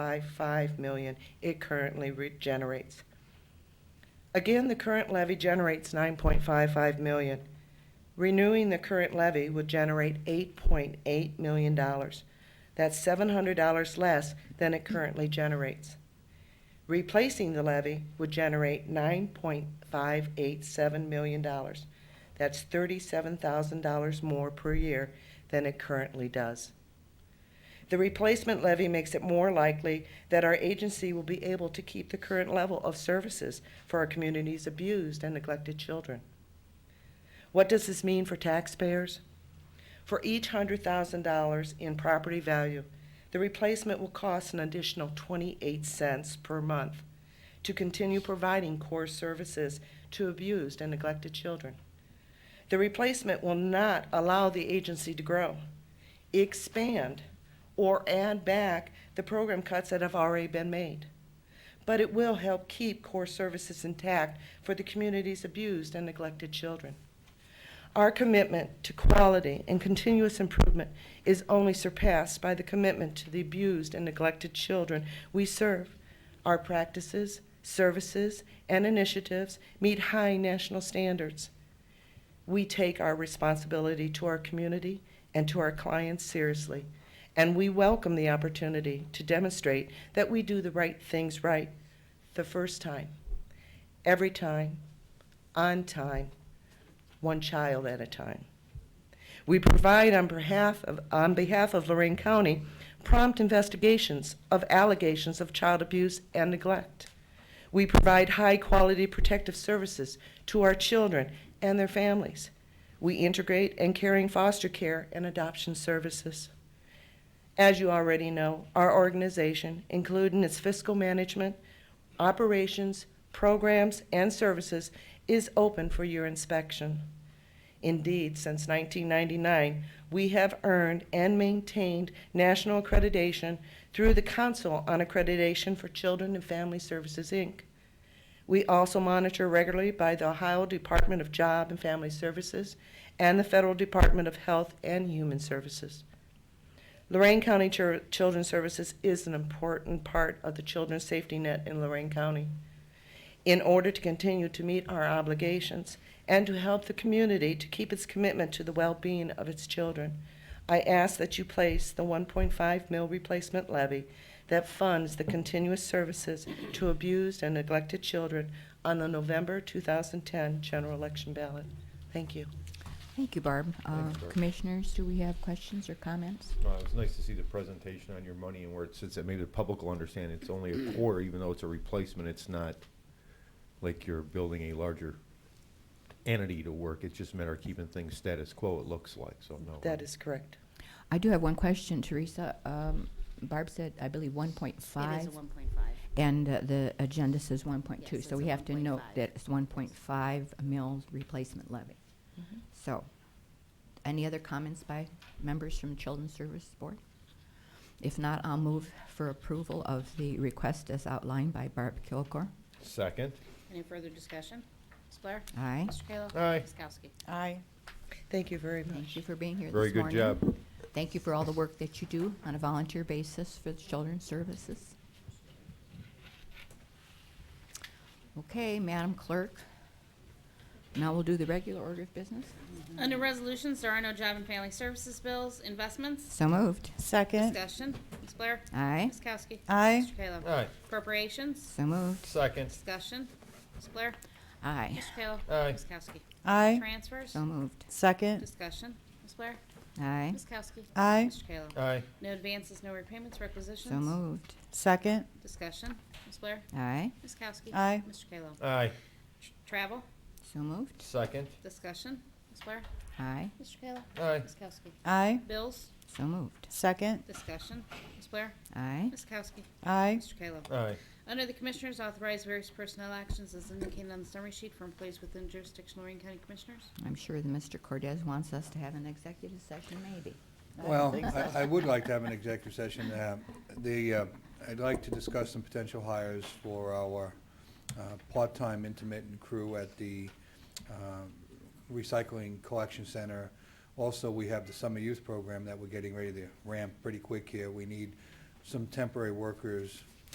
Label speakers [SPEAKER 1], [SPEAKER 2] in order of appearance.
[SPEAKER 1] by 5 million it currently re- generates. Again, the current levy generates 9.55 million. Renewing the current levy would generate 8.8 million dollars. That's $700 less than it currently generates. Replacing the levy would generate $9.587 million. That's $37,000 more per year than it currently does. The replacement levy makes it more likely that our agency will be able to keep the current level of services for our community's abused and neglected children. What does this mean for taxpayers? For each hundred thousand dollars in property value, the replacement will cost an additional twenty-eight cents per month to continue providing core services to abused and neglected children. The replacement will not allow the agency to grow, expand, or add back the program cuts that have already been made. But it will help keep core services intact for the community's abused and neglected children. Our commitment to quality and continuous improvement is only surpassed by the commitment to the abused and neglected children we serve. Our practices, services, and initiatives meet high national standards. We take our responsibility to our community and to our clients seriously, and we welcome the opportunity to demonstrate that we do the right things right the first time, every time, on time, one child at a time. We provide on behalf of, on behalf of Lorraine County prompt investigations of allegations of child abuse and neglect. We provide high-quality protective services to our children and their families. We integrate and caring foster care and adoption services. As you already know, our organization, including its fiscal management, operations, programs, and services, is open for your inspection. Indeed, since 1999, we have earned and maintained national accreditation through the Council on Accreditation for Children and Family Services, Inc. We also monitor regularly by the Ohio Department of Job and Family Services and the Federal Department of Health and Human Services. Lorraine County Chir- Children's Services is an important part of the children's safety net in Lorraine County. In order to continue to meet our obligations and to help the community to keep its commitment to the well-being of its children, I ask that you place the 1.5 mil replacement levy that funds the continuous services to abused and neglected children on the November 2010 general election ballot. Thank you.
[SPEAKER 2] Thank you, Barb. Uh,
[SPEAKER 3] Thanks, Barb.
[SPEAKER 2] Commissioners, do we have questions or comments?
[SPEAKER 3] Uh, It's nice to see the presentation on your money and where it sits, that maybe the public will understand it's only a quarter, even though it's a replacement, it's not like you're building a larger entity to work, it's just a matter of keeping things status quo, it looks like, so no.
[SPEAKER 1] That is correct.
[SPEAKER 2] I do have one question, Teresa. Um, Barb said, I believe, 1.5.
[SPEAKER 4] It is a one point five.
[SPEAKER 2] And uh, the agenda says
[SPEAKER 4] Yes,
[SPEAKER 2] 1.2, so
[SPEAKER 4] it's
[SPEAKER 2] we
[SPEAKER 4] a
[SPEAKER 2] have to note
[SPEAKER 4] 1.5.
[SPEAKER 2] that it's 1.5 mils replacement levy. So, any other comments by members from Children's Service Board? If not, I'll move for approval of the request as outlined by Barb Kilgore.
[SPEAKER 3] Second,
[SPEAKER 4] Any further discussion? Ms. Blair?
[SPEAKER 2] Aye.
[SPEAKER 4] Mr. Kayla?
[SPEAKER 3] Aye.
[SPEAKER 4] Ms. Kowski?
[SPEAKER 5] Aye.
[SPEAKER 1] Thank you very much.
[SPEAKER 2] Thank you for being here this
[SPEAKER 3] very
[SPEAKER 2] morning.
[SPEAKER 3] good job.
[SPEAKER 2] Thank you for all the work that you do on a volunteer basis for the Children's Services. Okay, Madam Clerk. Now we'll do the regular order of business.
[SPEAKER 4] Under resolutions, there are no job and family services bills, investments,
[SPEAKER 2] So moved.
[SPEAKER 5] Second.
[SPEAKER 4] discussion. Ms. Blair?
[SPEAKER 2] Aye.
[SPEAKER 4] Ms. Kowski?
[SPEAKER 5] Aye.
[SPEAKER 4] Mr. Kayla?
[SPEAKER 3] Aye.
[SPEAKER 4] Appropriations,
[SPEAKER 2] So moved.
[SPEAKER 3] Second,
[SPEAKER 4] discussion. Ms. Blair?
[SPEAKER 2] Aye.
[SPEAKER 4] Mr. Kayla?
[SPEAKER 3] Aye.
[SPEAKER 4] Ms. Kowski?
[SPEAKER 5] Aye.
[SPEAKER 4] Transfers,
[SPEAKER 2] So moved.
[SPEAKER 5] Second.
[SPEAKER 4] discussion. Ms. Blair?
[SPEAKER 2] Aye.
[SPEAKER 4] Ms. Kowski?
[SPEAKER 5] Aye.
[SPEAKER 4] Mr. Kayla?
[SPEAKER 3] aye,
[SPEAKER 4] No advances, no repayments, requisitions.
[SPEAKER 2] So moved.
[SPEAKER 5] Second.
[SPEAKER 4] Discussion. Ms. Blair?
[SPEAKER 2] Aye.
[SPEAKER 4] Ms. Kowski?
[SPEAKER 5] Aye.
[SPEAKER 4] Mr. Kayla?
[SPEAKER 3] aye,
[SPEAKER 4] Tr- Travel,
[SPEAKER 2] So moved.
[SPEAKER 3] second,
[SPEAKER 4] discussion. Ms. Blair?
[SPEAKER 2] Aye.
[SPEAKER 4] Mr. Kayla?
[SPEAKER 3] aye,
[SPEAKER 4] Ms. Kowski?
[SPEAKER 5] Aye.
[SPEAKER 4] Bills,
[SPEAKER 2] So moved.
[SPEAKER 5] Second.
[SPEAKER 4] Discussion, Ms. Blair,
[SPEAKER 2] Aye.
[SPEAKER 4] Ms. Kowski,
[SPEAKER 5] Aye.
[SPEAKER 4] Mr. Kayla.
[SPEAKER 3] aye,
[SPEAKER 4] Under the Commissioners, authorize various personnel actions as indicated on the summary sheet for employees within jurisdiction Lorraine County Commissioners.
[SPEAKER 2] I'm sure that Mr. Cordez wants us to have an executive session, maybe.
[SPEAKER 6] Well, I, I would like to have an executive session. Uh, The, uh, I'd like to discuss some potential hires for our uh, part-time intermittent crew at the um, recycling collection center. Also, we have the summer youth program that we're getting ready to ramp pretty quick here. We need some temporary workers